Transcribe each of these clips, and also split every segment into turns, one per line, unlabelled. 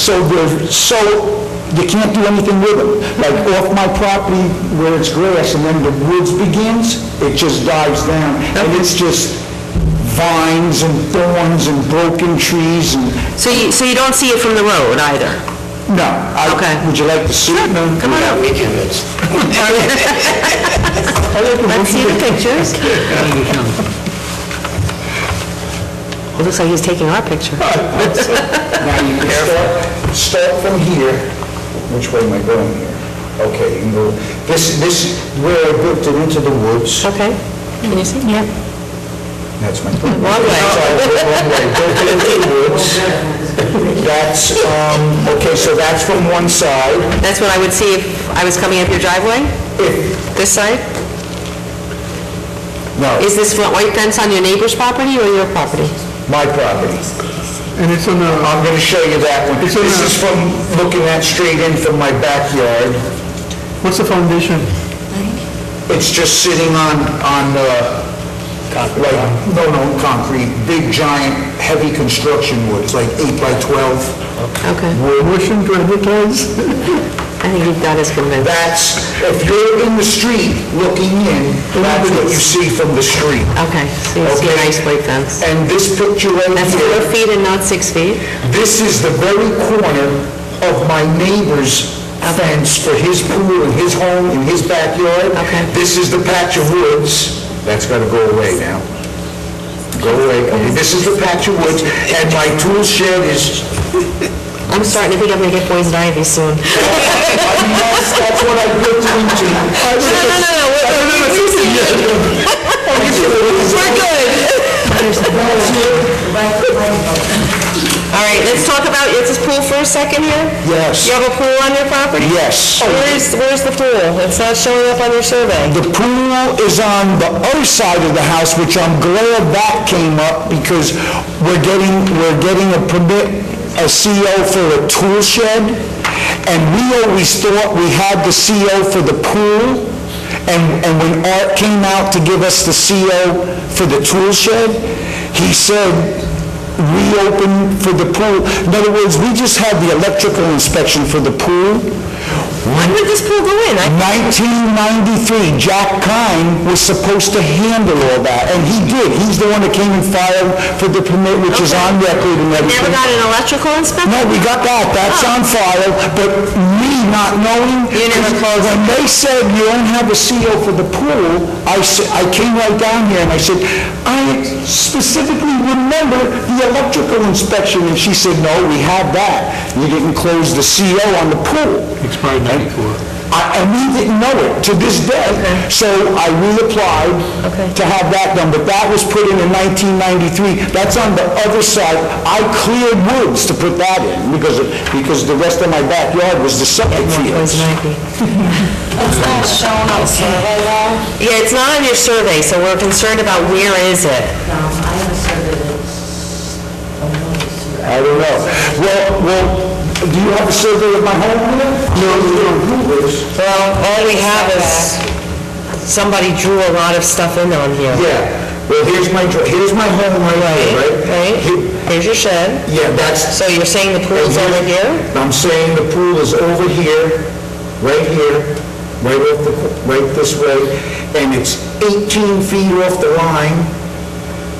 So there, so you can't do anything with them. Like off my property where it's grass and then the woods begins, it just dives down. And it's just vines and thorns and broken trees and,
So you, so you don't see it from the road either?
no. I-
Okay.
Would you like to see it? No.
Come on up. Let's see the pictures. It looks like he's taking our picture.
Now you can start, start from here. Which way am I going here? Okay, you can go, this, this, where I built it into the woods,
Okay. Can you see? Yeah.
that's my point.
One way.
That's, um, okay, so that's from one side.
That's what I would see if I was coming up your driveway, this side?
No,
Is this front white fence on your neighbor's property or your property?
my property.
And it's on the,
I'm gonna show you that one.
It's
This
on the-
is from looking at straight in from my backyard.
what's the foundation?
It's just sitting on, on, uh, like, no, no, concrete, big, giant, heavy construction wood. It's like eight by 12.
Okay.
Motion to advertise?
I think you've got us convinced.
That's, if you're in the street looking in, that's what you see from the street.
Okay, so you see a
Okay.
nice white fence.
And this picture right here...
That's four feet and not six feet?
This is the very corner of my neighbor's fence for his pool and his home and his backyard.
Okay.
This is the patch of woods. That's gotta go away now. Go away. Okay, This is the patch of woods, and my tool shed is,
I'm starting to think I'm gonna get poison ivy soon.
I mean, that's, that's what I built it into.
We're good. All right, let's talk about, is this pool for a second here?
Yes.
You have a pool on your property?
Yes.
Where's, where's the pool? It's not showing up on your survey.
The pool is on the other side of the house, which I'm glad that came up because we're getting, we're getting a permit, a CO for a tool shed, and we always thought we had the CO for the pool, and, and when Art came out to give us the CO for the tool shed, he said, reopen for the pool. In other words, we just had the electrical inspection for the pool. When did this pool go in? 1993, Jack Kine was supposed to handle all that, and he did. He's the one that came and filed for the permit, which is on record and everything.
Never got an electrical inspection?
No, we got that, that's on file, but me not knowing...
You never closed it.
When they said you don't have a CO for the pool, I said, I came right down here and I said, I specifically remember the electrical inspection, and she said, no, we have that. You didn't close the CO on the pool.
Expired 94.
I- And we didn't know it to this day. So I reapplied to have that done, but that was put in in 1993. That's on the other side. I cleared woods to put that in because, of- because the rest of my backyard was the septic fields.
Poison ivy.
No,
Yeah, it's not on your survey, so we're concerned about where is it?
I have a survey that's, oh, no, it's here.
I don't know. Well, well, do you have a survey of my home here? No, you don't do this.
Well, all we have is, somebody drew a lot of stuff in on here.
Yeah. Well, here's my, dr- here's my home right here, right? Here-
Right? Here's your shed.
Yeah, that's,
So you're saying the pool's over here?
I'm saying the pool is over here, right here, right off the, right this way, and it's 18 feet off the line,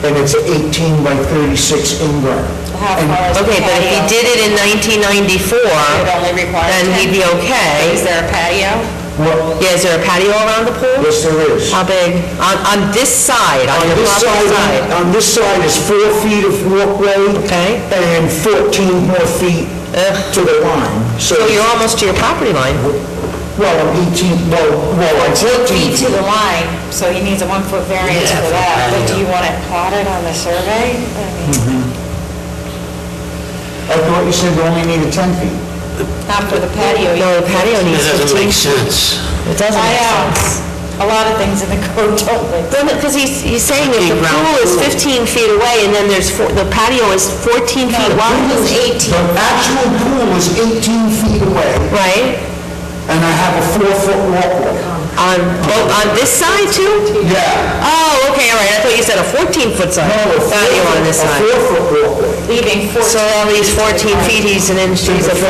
and it's an 18 by 36 in ground.
How far is the
Okay, but if he
patio?
did it in 1994,
It only requires
then he'd
10.
be
Is
okay.
there a patio?
Well,
Yeah, is there a patio around the pool?
yes, there is.
How big? On, on this side, on your
This
property
side,
side?
on this side is four feet of walkway.
Okay.
And 14 more feet to the line. So,
So you're almost to your property line.
well, I'm 18, well, well, I'm 14.
Two feet to the line, so he needs a one-foot variance for that, but do you want it plotted on the survey? I mean,
I thought you said you only needed 10 feet.
Not for the patio. you-
No, the patio needs 15.
sense.
It doesn't
I
make
know,
sense.
a lot of things in the code don't make,
Because he's, he's saying if the pool is 15 feet away and then there's, four- the patio is 14 feet wide,
The actual pool is 18 feet away,
right?
and I have a four-foot walkway.
On, oh, on this side too?
Yeah.
Oh, okay, all right, I thought you said a 14-foot side.
No, a
Patio on this
four-foot-
side.
A four-foot walkway.
leaving 14
So all these 14 feet, he's an inch, he's a foot